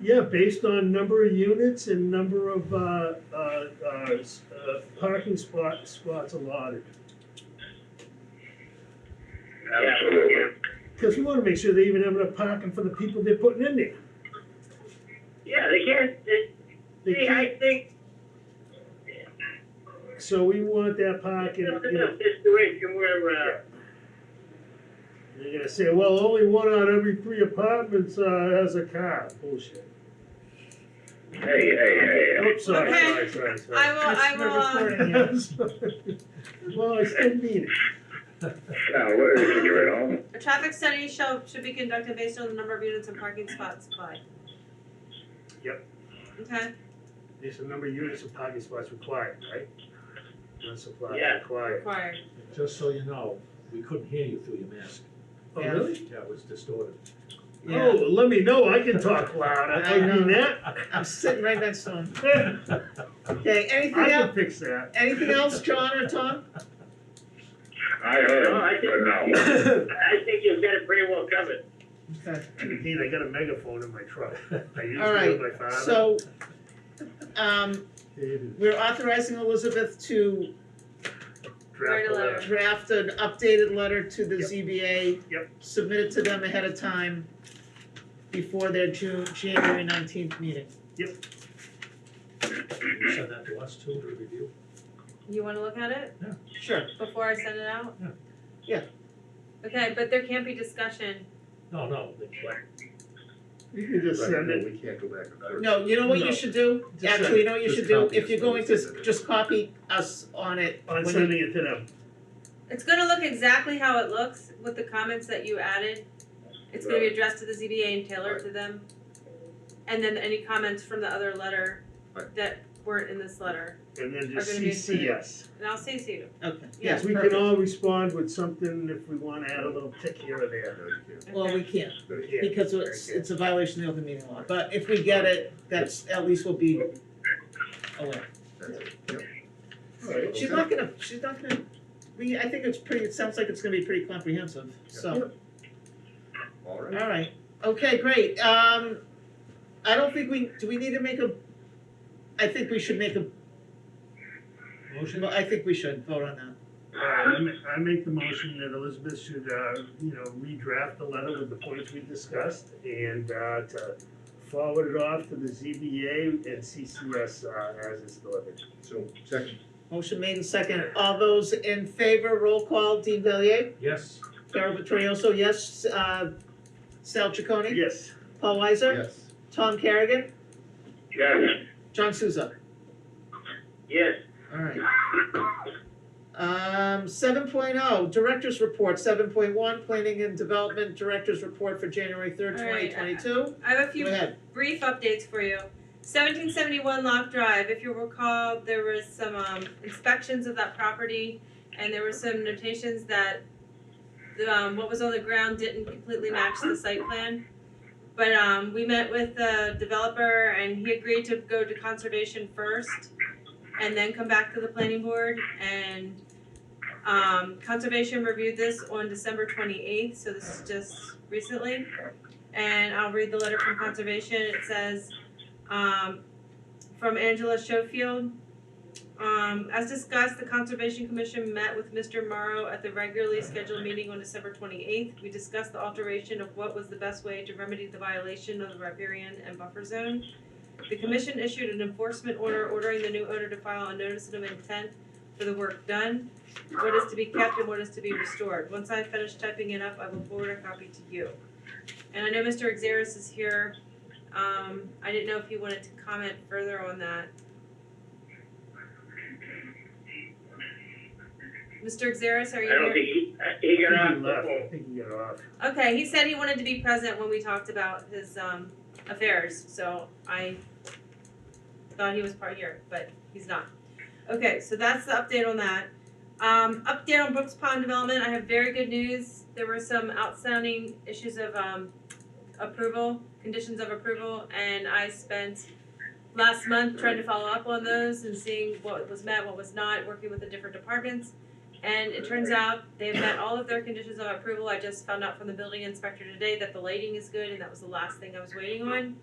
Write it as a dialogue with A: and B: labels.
A: Yeah, based on number of units and number of, uh, uh, uh, s- uh, parking spot, spots allotted.
B: Absolutely.
A: Cause we wanna make sure they even have enough parking for the people they're putting in there.
B: Yeah, they can't, they,
A: They
B: see,
A: can't,
B: I think,
A: so we want that
B: it's
A: parking,
B: not
A: you know,
B: enough situation where, uh,
A: they're gonna say, well, only one out of every three apartments, uh, has a car, bullshit.
B: hey, hey, hey, hey.
A: Oops, sorry,
C: Okay.
A: sorry, sorry, sorry.
C: I will, I will, um,
A: Well, I still mean it.
B: Now, where is it, you're at home?
C: A traffic study shall, should be conducted based on the number of units and parking spots supplied.
A: Yep.
C: Okay,
A: There's a number of units of parking spots required, right? Not supplied,
B: Yeah.
A: required.
C: required.
D: Just so you know, we couldn't hear you through your mask.
A: Oh,
C: Yeah.
A: really?
D: Yeah, it was distorted.
A: Oh, let me know, I can talk loud, I
E: I
A: mean
E: know.
A: that.
E: I'm sitting right next to him.
A: I
E: Okay, anything else,
A: can fix that.
E: anything else, John or Tom?
B: I heard, but no.
A: Dean,
B: I think you've got it pretty well covered.
E: Okay,
A: I got a megaphone in my truck. I used
E: All
A: to
E: right,
A: with my father.
E: so, um,
A: Hated
E: we're authorizing Elizabeth to
A: Draft
C: Write a letter.
A: letter.
E: draft an updated letter to the ZBA.
A: Yep.
E: Submit it to them ahead of time before their June, January nineteenth meeting.
D: Can you send that to us too to review?
C: You wanna look at it
E: Sure.
C: before I send it out?
D: Yeah.
E: Yeah.
C: Okay, but there can't be discussion.
D: No, no, they- but
A: You can just
F: Right,
A: send
F: no,
A: it.
F: We can't go back and forth.
E: No, you know what
A: No.
E: you should do?
A: Just
E: Actually, you know what you
F: just
E: should do?
F: copy
E: If
F: us
E: you're
F: when
E: going
F: we send
E: to,
F: it.
E: just copy us on it.
A: I'm
E: when you-
A: sending it to them.
C: It's gonna look exactly how it looks with the comments that you added. It's gonna be addressed to the ZBA and tailored to them. And then any comments from the other letter
F: Right.
C: that weren't in this letter,
A: And then just
C: Are gonna be
A: CC us.
C: and I'll CC you.
E: Okay, yeah,
A: Yes, we can
E: perfect.
A: all respond with something if we wanna add a little tick here or there.
F: No, you can't.
E: Well, we can't.
F: No, you
A: Yeah.
E: Because it's,
A: Very good.
E: it's a violation of the open meeting law, but if we get it, that's, at least we'll be aware.
F: can't. That's it. Yep.
A: Alright.
E: She's not gonna, she's not gonna, we, I think it's pretty, it sounds like it's gonna be pretty comprehensive, so,
F: All right.
E: alright, okay, great, um, I don't think we, do we need to make a, I think we should make a,
D: motion?
E: well, I think we should vote on that.
A: Uh, I ma- I make the motion that Elizabeth should, uh, you know, redraft the letter with the points we discussed and, uh, to forward it off to the ZBA and CCS, uh, as it's delivered.
F: So, second,
E: Motion made and second, all those in favor, roll call, Dean Valier,
D: Yes,
E: Carol Vittorioso, yes, uh, Sal Chaconi,
A: Yes,
E: Paul Weiser,
F: yes.
E: Tom Kerrigan,
B: Yes,
E: John Souza,
B: yes.
E: alright. Um, seven Director's Report, seven point one, Planning and Development Director's Report for January third,
C: All
E: twenty
C: right,
E: twenty-two.
C: I have a few
E: Go ahead,
C: brief updates for you. Seventeen seventy-one Lock Drive, if you recall, there was some um inspections of that property and there were some notations that the um what was on the ground didn't completely match the site plan. But um we met with the developer and he agreed to go to conservation first and then come back to the planning board and um conservation reviewed this on December twenty-eighth, so this is just recently and I'll read the letter from conservation. It says, um, from Angela Schofield. Um, as discussed, the Conservation Commission met with Mr. Morrow at the regularly scheduled meeting on December twenty-eighth. We discussed the alteration of what was the best way to remedy the violation of the riparian and buffer zone. The commission issued an enforcement order ordering the new owner to file a notice of intent for the work done, what is to be kept and what is to be restored. Once I finish typing it up, I will forward a copy to you. And I know Mr. Xeris is here. Um, I didn't know if he wanted to comment further on that. Mr. Xeris, are
B: I
C: you
B: don't
C: here?
B: think he, he
A: I
B: got
A: think
B: off
A: he
B: the
A: left, I
B: phone.
A: think he got off.
C: Okay, he said he wanted to be present when we talked about his um affairs, so I thought he was part here, but he's not. Okay, so that's the update on that. Um, update on Brooks Pond development, I have very good news. There were some outstanding issues of um approval, conditions of approval, and I spent last month trying to follow up on those and seeing what was met, what was not, working with the different departments. And it turns out they have met all of their conditions of approval. I just found out from the building inspector today that the lighting is good and that was the last thing I was waiting on.